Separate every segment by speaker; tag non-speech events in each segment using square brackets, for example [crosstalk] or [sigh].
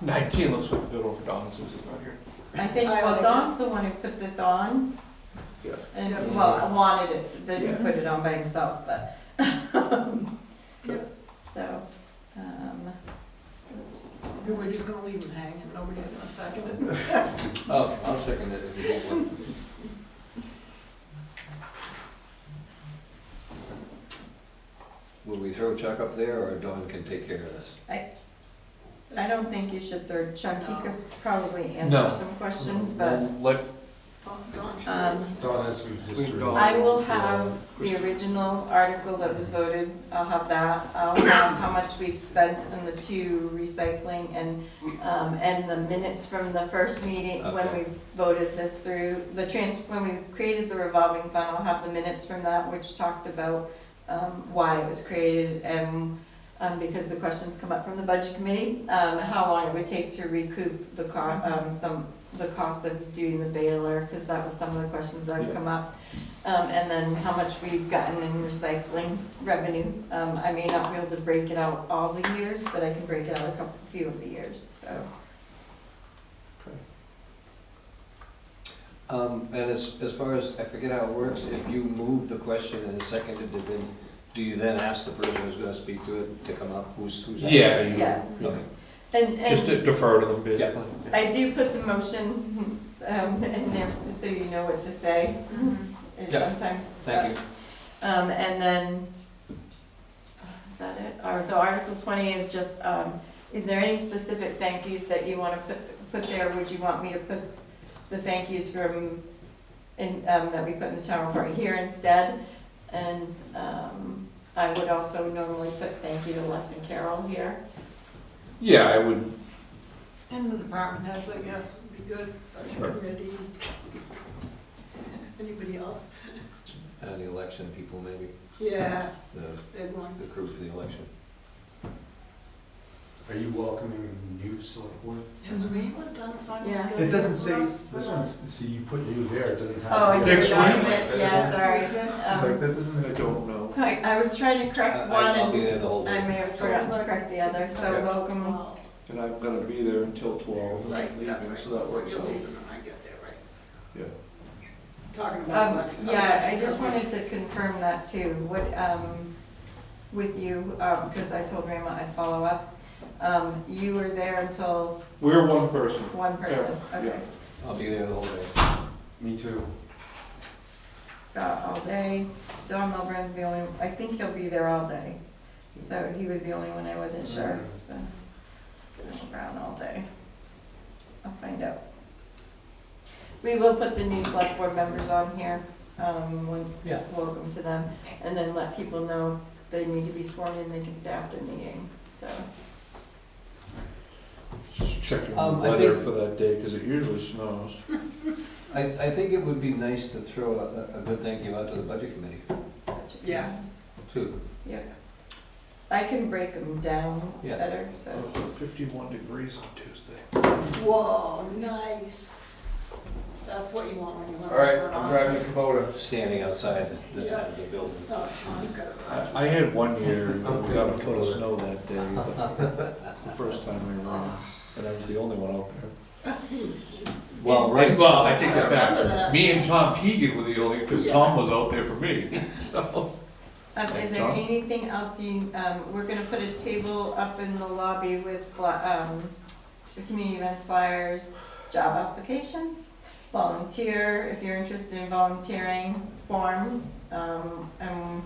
Speaker 1: 19, let's flip it over to Don since he's not here.
Speaker 2: I think,
Speaker 3: I
Speaker 2: well,
Speaker 3: like
Speaker 2: Don's the one who put this on.
Speaker 1: Yeah.
Speaker 2: And,
Speaker 3: Yeah.
Speaker 2: well, wanted it,
Speaker 1: Yeah.
Speaker 2: didn't put it on by himself, but. [laughs]
Speaker 1: Yep.
Speaker 2: So, um, oops.
Speaker 3: We're just gonna leave them hanging, nobody's gonna second it.
Speaker 4: Oh, I'll second it if you want one. Will we throw Chuck up there, or Dawn can take care of this?
Speaker 2: I don't think you should third Chuck, he
Speaker 3: No.
Speaker 2: could probably
Speaker 1: No.
Speaker 2: answer some questions, but
Speaker 1: Let,
Speaker 3: Don't- don't you?
Speaker 2: Um,
Speaker 5: Don has some history.
Speaker 1: Don-
Speaker 2: I will have the original article that was voted, I'll have that. I'll have how much we've spent on the two recycling and, um, and the minutes from the first meeting when we
Speaker 4: Okay.
Speaker 2: voted this through. The trans, when we created the revolving fund, I'll have the minutes from that, which talked about, um, why it was created and, um, because the questions come up from the budget committee, um, how long it would take to recoup the co,
Speaker 4: Mm-hmm.
Speaker 2: um, some, the cost of doing the baler, because that was some of the questions that have come up. Um, and then how much we've gotten in recycling revenue. Um, I may not be able to break it out all the years, but I can break it out a couple, few of the years, so.
Speaker 4: Um, and as, as far as, I forget how it works, if you move the question and it's seconded, and then, do you then ask the person who's gonna speak to it to come up, who's, who's? asking?
Speaker 1: yeah, you-
Speaker 2: Yes.
Speaker 4: Okay.
Speaker 2: And,
Speaker 1: just
Speaker 2: and
Speaker 1: to defer to them, basically.
Speaker 2: I do put the motion, [laughs] um, in there, so you know what to say.
Speaker 3: Mhm.
Speaker 2: And
Speaker 4: Mm-hmm. Yeah.
Speaker 2: sometimes. uh,
Speaker 4: Thank you.
Speaker 2: Um, and then, is that it? Or, so Article twenty is just, um, is there any specific thank yous that you wanna put, put there? Would you want me to put the thank yous from, in, um, that we put in the town report here instead? And, um, I would also normally put thank you to Les and Carol here.
Speaker 1: Yeah, I would,
Speaker 3: And the department heads, I guess, would be good, budget
Speaker 1: Sure.
Speaker 3: committee. Anybody else?
Speaker 4: And Uh, the election people, maybe,
Speaker 3: Yes,
Speaker 4: the,
Speaker 3: big one.
Speaker 4: the crew for the election.
Speaker 5: Are you welcoming new select board?
Speaker 3: Has anyone done a final
Speaker 2: Yeah.
Speaker 3: schedule?
Speaker 5: It doesn't say,
Speaker 3: for us?
Speaker 5: this one's, see, you put new there, it doesn't have.
Speaker 2: Oh, I did
Speaker 1: Next
Speaker 2: not
Speaker 1: week?
Speaker 2: put- Yeah, sorry.
Speaker 5: It's like,
Speaker 2: Um,
Speaker 5: that doesn't.
Speaker 1: I don't know.
Speaker 2: I, I was trying to
Speaker 4: Uh, I,
Speaker 2: correct one
Speaker 4: I'll be
Speaker 2: and
Speaker 4: there the whole day.
Speaker 2: I may have forgotten to correct the other, so
Speaker 4: Okay.
Speaker 2: welcome.
Speaker 3: Well,
Speaker 1: And I'm gonna be there until 12, and
Speaker 3: Right,
Speaker 1: I'm
Speaker 3: that's
Speaker 1: leaving,
Speaker 3: right.
Speaker 1: so that works
Speaker 3: you're
Speaker 1: out.
Speaker 3: leaving when I get there, right?
Speaker 1: Yeah.
Speaker 3: Talking
Speaker 2: Um,
Speaker 3: about. election.
Speaker 2: yeah, I just wanted to confirm that too, what, um, with you, um, because I told Rama I'd follow up. Um, you were there until
Speaker 1: We're one person.
Speaker 2: one person,
Speaker 1: Yeah, yeah.
Speaker 2: okay,
Speaker 4: I'll be there the whole day.
Speaker 5: Me too.
Speaker 2: Scott all day, Don Milburn's the only, I think he'll be there all day. So he was the only one I wasn't sure, so, Donald Brown all day. I'll find out. We will put the new select board members on here, um, when-
Speaker 4: Yeah.
Speaker 2: welcome to them, and then let people know they need to be sworn in, they can stay after the meeting, so.
Speaker 1: Just checking the
Speaker 4: Um, I
Speaker 1: weather
Speaker 4: think-
Speaker 1: for that day, because it usually snows.
Speaker 4: I, I think it would be nice to throw a, a good thank you out to the budget committee,
Speaker 3: Yeah.
Speaker 4: too.
Speaker 2: I can break them down
Speaker 4: Yeah.
Speaker 2: better, so.
Speaker 1: 51 degrees on Tuesday.
Speaker 3: Whoa, nice. That's what you want when you want.
Speaker 5: All right, I'm driving the Kubota.
Speaker 4: Standing outside the, the, the building.
Speaker 3: Oh, Sean's got it.
Speaker 1: I, I had one [laughs] year, when we got a foot of
Speaker 4: Okay.
Speaker 1: snow that day, but the first time I ran, and I was the only one out there.
Speaker 4: Well, right.
Speaker 1: Well, I take
Speaker 3: I
Speaker 1: that
Speaker 3: remember that.
Speaker 1: back. Me and Tom Keegan were the only, because
Speaker 3: Yeah.
Speaker 1: Tom was out there for me, so.
Speaker 2: Um, is
Speaker 1: Thanks,
Speaker 2: there
Speaker 1: Dawn.
Speaker 2: anything else you, um, we're gonna put a table up in the lobby with, fla- um, the community events flyers, job applications, volunteer, if you're interested in volunteering, forms, um, um,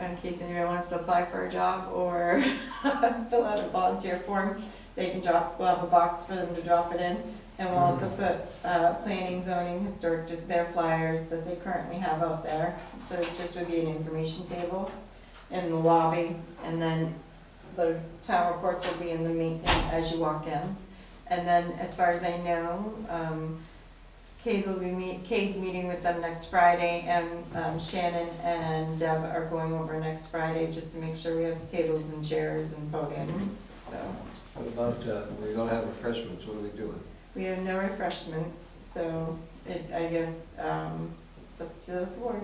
Speaker 2: in case anyone wants to apply for a job or [laughs] fill out a volunteer form, they can drop, we'll have a box for them to drop it in. And we'll also put, uh, planning, zoning, historic, di- their flyers that they currently have out there. So it just would be an information table in the lobby, and then the town reports will be in the meeting as you walk in. And then, as far as I know, um, Kate will be meet, Kate's meeting with them next Friday, and, um, Shannon and Deb are going over next Friday just to make sure we have tables and chairs and podiums, so.
Speaker 4: What about, uh, we're gonna have refreshments, what are we doing?
Speaker 2: We have no refreshments, so it, I guess, um, it's up to the board.